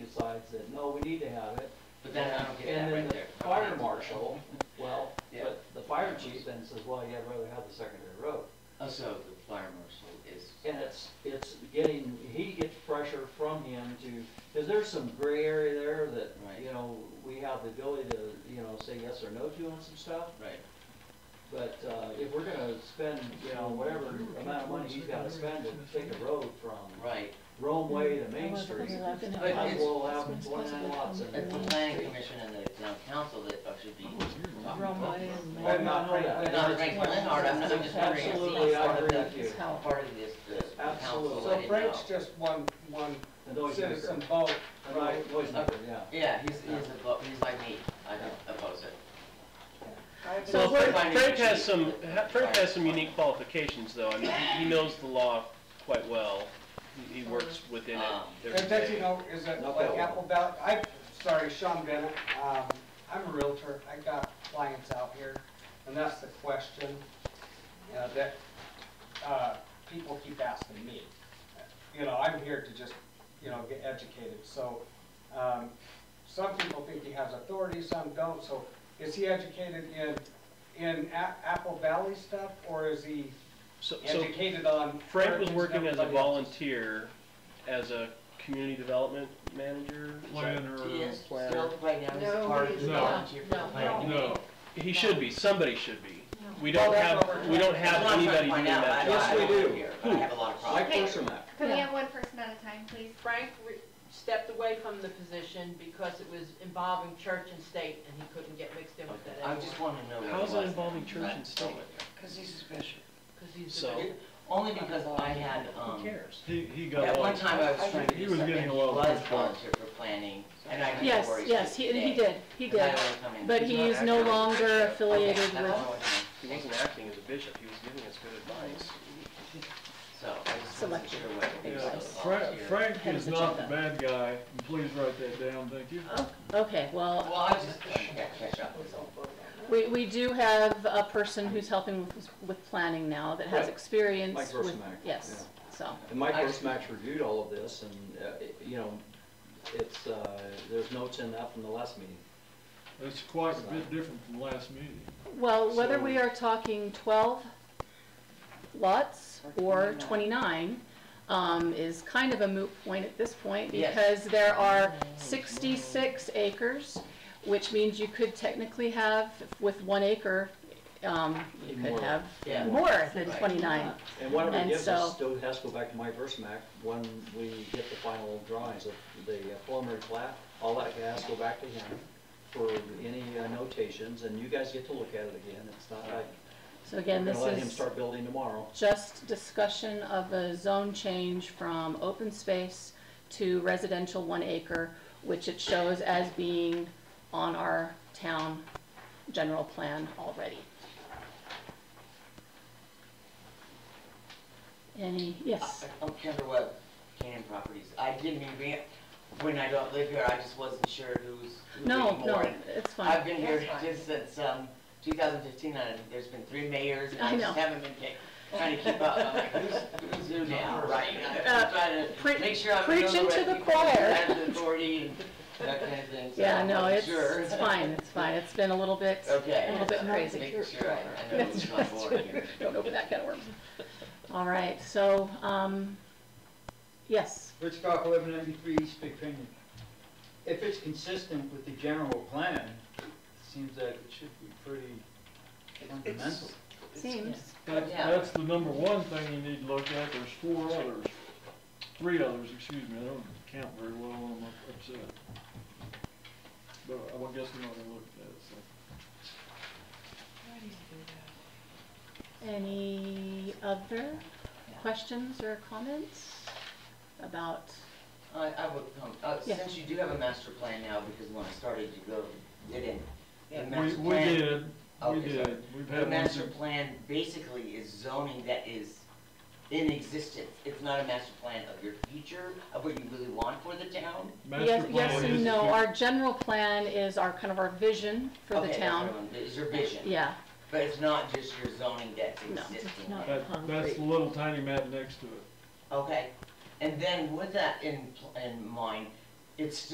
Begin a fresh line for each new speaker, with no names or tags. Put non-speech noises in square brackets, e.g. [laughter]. side said, no, we need to have it.
But then I don't get that
And then
right
the
there.
fire marshal, well,
Yeah.
but the fire chief then says, well, yeah, I'd rather have the secondary road.
Oh, so the fire marshal is.
And it's, it's getting, he gets pressure from him to, because there's some gray area there that,
Right.
you know, we have the ability to, you know, say yes or no to on some stuff.
Right,
But, uh, if we're gonna spend, you know, whatever amount of money he's gotta spend to take a road from
right.
Rome Way to Main Street,
Mm-hmm.
I will have twenty-nine lots in there.
It's the planning commission and the town council that uh, should be
Oh.
talking about
Roadway
this.
and-
I'm not for that.
Not Frank Leonard, I'm not I'm just wondering if
Absolutely,
he's
I
part of
agree
the,
with you.
part of this, the the council, I
Absolutely.
So
didn't know.
Frank's just one, one
The noise maker,
citizen vote,
the
right?
noi- noise maker, yeah.
Yeah, he's, he's above, he's like me, I don't oppose it. Well,
Well, Frank,
finding
Frank has
issues
some,
with-
ha- Frank has some unique qualifications, though. I mean, he, he knows the law quite well. He- He works within it
Um,
every
And that, you
day.
know, is it
Not
like
that
Apple Valley, I, sorry, Sean Bennett, um, I'm a realtor, I got clients out here, and that's the question, you know, that, uh, people keep asking me. You know, I'm here to just, you know, get educated, so, um, some people think he has authority, some don't, so is he educated in, in A- Apple Valley stuff, or is he
So, so
educated on?
Frank was
everything
working as a
everybody else?
volunteer, as a community development manager. is that-
planner.
He is
Planner.
still right now, he's
No,
part
he
of the
is not.
volunteer for the
No,
planning.
No,
He should be, somebody should be.
No.
We
Well,
don't
that's what
have,
we're
we don't have
That's what I'm trying to
anybody doing
find out,
that.
I
job.
don't- I
Yes, we
don't
do.
wanna hear, but I have a lot of
Mike
problems.
Okay.
Corsomac,
Could
Yeah.
we have one person at a time, please?
Frank re- stepped away from the position because it was involving church and state, and he couldn't get mixed in with that
Okay, I
anymore.
just wanna know what it was.
How's that involving church and state?
Cause he's a bishop.
'cause he's the
So-
bishop.
Only because I had,
Who
um,
cares?
he, he got
at one
along.
time I was trying to
He
do
was
something,
getting
he
a lot of
was
pushback.
volunteer for planning, and I know
Yes,
where he's.
yes, he, and he did, he did. But he is no longer affiliated with-
He wasn't acting as a bishop, he was giving us good advice.
So I just wasn't
Selective
sure what he was
Yeah,
a
Frank,
volunteer.
Frank
Head of
is not the
agenda.
bad guy, and please write that down, thank you.
Oh, Okay,
Well,
well,
I was just trying to catch up with him.
we, we do have a person who's helping with, with planning now that has
Right.
experience
Mike
with,
Grossman,
yes, so.
and Mike
I-
Corsomac reviewed all of this, and, uh, it- you know, it's, uh, there's notes in that from the last meeting.
It's quite a bit different from last meeting.
Well, whether
So-
we are talking twelve lots or twenty-nine, um, is kind of a moot point at this point
Yes.
because there are sixty-six acres, which means you could technically have, with one acre, um, you
More.
could have
Yeah.
more than
Right.
twenty-nine.
And whatever it
And
gives us
so-
still has to go back to Mike Versmack when we get the final drawings of the preliminary plat. All that has to go back to him for any uh, notations, and you guys get to look at it again. It's not like,
So
we're
again, this
gonna
is.
let him start building tomorrow.
just discussion of a zone change from open space to residential one acre, which it shows as being on our town general plan already. Any, yes,
I- I'm Kendra Webb, Canaan Properties. I didn't even, re- when I don't live here, I just wasn't sure who's, who
no,
was
no,
more.
it's
I've
fine,
been here
That's fine.
just since, um, two thousand fifteen, and there's been three mayors, and
I
I
know.
just haven't been ca- trying to keep up. I'm like, who's, who's who now, right? I'm trying
Uh, pre-
to make sure I'm.
preach
doing the
into
right
the
people,
choir.
have the authority and that kind of thing. so
yeah,
I'm
no,
not
it's,
sure.
it's fine, it's fine, it's been a little bit,
Okay.
a little bit crazy.
Making sure I I know
That's
who's
right.
on
[laughs]
board here.
Don't open that can of worms. All right, so, um, yes,
Rich Cock, eleven ninety-three East Big Pinion. If it's consistent with the general plan, it seems that it should be pretty fundamental.
seems.
That's,
Yeah.
that's the number one thing you need to look at, there's four others, three others, excuse me, I don't count very well, I'm upset. But I guess we're not gonna look at it, so.
Any other questions or comments about,
I, I would, um, uh,
Yeah.
since you do have a master plan now, because when I started, you go, didn't. The
We,
master
we
plan-
did, we
Okay, sorry.
did, we've
The
had one
master
since
plan basically is zoning that is in existence. It's not a master plan of your future, of what you really want for the town.
master
yes,
plan.
yes
is-
and no, our general plan is our, kind of our vision for the
Okay, that's what I
town.
wanted. It's your vision,
Yeah,
but it's not just your zoning that's
No,
existing.
it's not.
That, that's the little tiny map next to it.
Okay, and then with that in, pl- in mind, it's still